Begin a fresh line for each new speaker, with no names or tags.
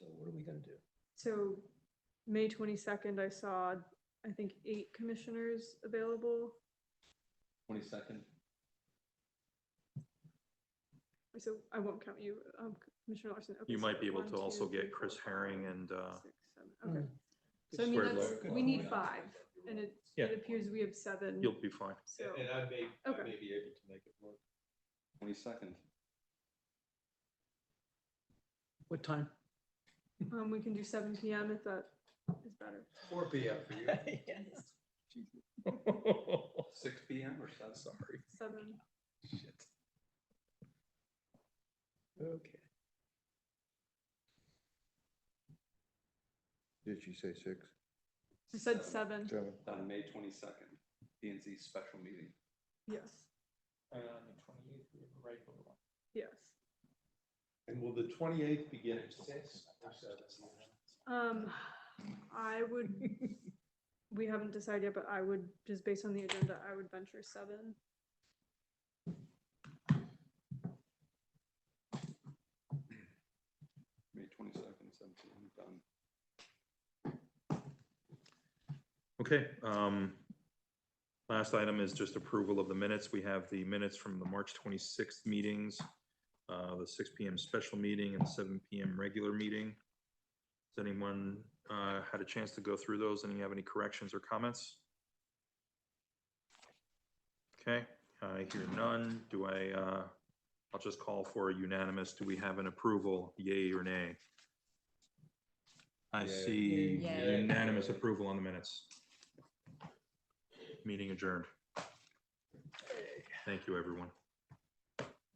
So May twenty-second, I saw, I think, eight commissioners available.
Twenty-second,
So I won't count you, um, Commissioner Larson. Okay,
You
so
might be able
one,
to also
two, three,
get Chris
four, five,
Herring and, uh,
six, seven, Okay, so I
Good
Hmm.
mean,
square
that's,
block.
we need
Yeah.
five, and it,
Yeah.
it appears we have seven,
you'll be fine.
so,
And I may,
Okay.
I may be able to make it work.
twenty-second.
What time?
um, we can do seven P M if that is better.
Four P M for you.
Six P M or seven? Sorry.
Seven,
Okay.
Did she say six?
I said seven,
Seven.
On May twenty-second, P and Z special meeting.
yes,
And on the twenty-eighth, we have a regular one.
yes.
And will the twenty-eighth begin at six or seven?
Um, I would, we haven't decided yet, but I would, just based on the agenda, I would venture seven.
May twenty-second, seven P M, done.
Okay, um, last item is just approval of the minutes. We have the minutes from the March twenty-sixth meetings, uh, the six P M special meeting and seven P M regular meeting. Has anyone, uh, had a chance to go through those? Any have any corrections or comments? Okay, I hear none. Do I, uh, I'll just call for a unanimous. Do we have an approval, yay or nay? I
Yay.
see
Yay.
unanimous approval on the minutes. Meeting adjourned. Thank you, everyone.